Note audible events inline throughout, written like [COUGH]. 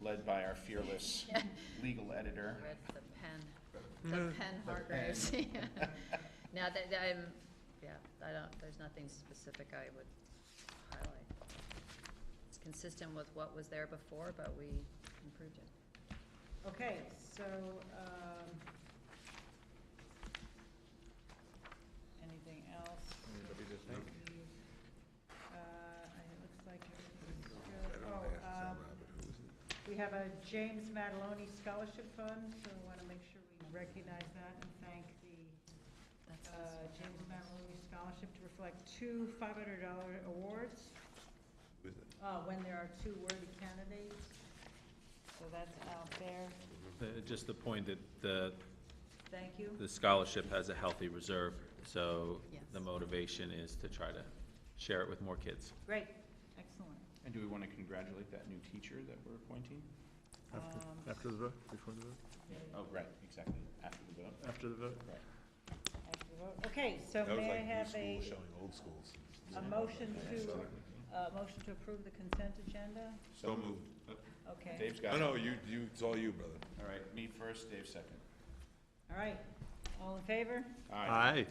led by our fearless legal editor. [LAUGHS] With the pen, the pen Hargreaves. [LAUGHS] yeah. Now, that, that I'm, yeah, I don't, there's nothing specific I would highlight. It's consistent with what was there before, but we improved it. Okay, so, um, anything else? Anybody just think? Uh, it looks like everything's I good. don't wanna Oh, ask Tom um, Abbott, who is it? we have a James Mataloni Scholarship Fund, so I want to make sure we recognize that and thank the That's uh, James Mataloni Scholarship to reflect two $500 awards Who is it? uh, when there are two worthy candidates. So that's out there. Uh, Just the point that the, Thank you. the scholarship has a healthy reserve, so the Yes. motivation is to try to share it with more kids. Great, excellent. And do we want to congratulate that new teacher that we're appointing? Um, After the vote, before the vote, Oh, right, exactly, after the vote. after the vote? Right. After the vote. Okay, so may I have a, old schools. a motion to, a motion to approve the consent agenda? So moved. Okay, Dave's No, got it. no, you, you, it's all you, brother. All right, me first, Dave second. all right. All in favor? All right, Aye.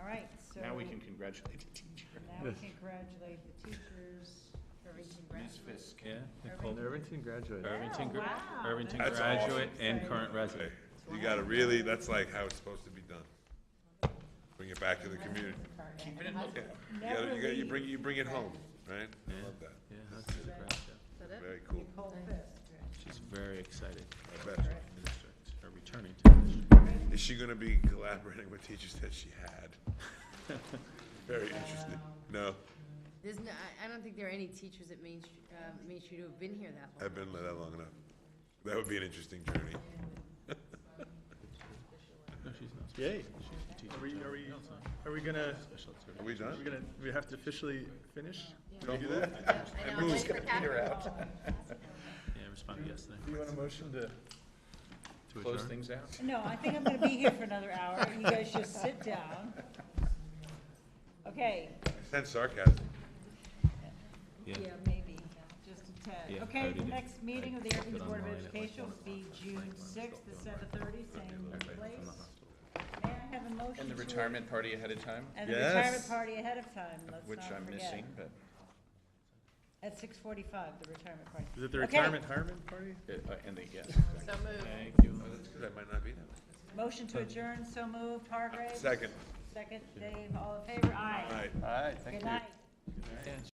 All right, so. now we can congratulate the teacher. Now we congratulate the teachers. Ms. Fisk. Yeah? Nicole? Irvington graduated. Irvington, gra- Wow, Irvington that's awesome. graduate and current resident. You gotta really, that's like how it's supposed to be done. Bring it back to the community. Keep it in look. Yeah, You gotta, you gotta, you bring, you bring it home, right? I love that. Yeah, that's a great job. Is that it? Very cool. Nicole Fisk. She's very excited. I bet. Or returning to the district. Is she gonna be collaborating with teachers that she had? [LAUGHS] Very interesting. No, There's no, I, I don't think there are any teachers at Main, Street- uh, Main Street who have been here that long. I've been there that long enough. That would be an interesting journey. No, she's not. Yay. She's a teacher. Are we, are we, No, it's not. are we gonna, Special ed Are service. we are we done? gonna, we have to officially finish? Don't do that. I know, I'm waiting for Catherine. Yeah, responded yesterday. Do you want a motion to? Close things out. No, I think I'm gonna be here for another hour. You guys just sit down. Okay, That's sarcasm. Yeah. Yeah, maybe, just a tad. Yeah, I Okay, the did it. next meeting of the I Irving looked it Board of online at, like, Education one will be June sixth at seven thirty, same place. May I have a motion to? And the retirement party ahead of time, And the Yes. retirement party ahead of time, let's which not I'm forget. missing, but At six forty-five, the retirement party. Is it the Okay. retirement retirement party? uh, and the yes. So moved. Thank you. Oh, that's good. I might not be there. Motion to adjourn, so moved, Hargrave. Second. Second, Dave, all in favor, All aye. right. Aye, Good night.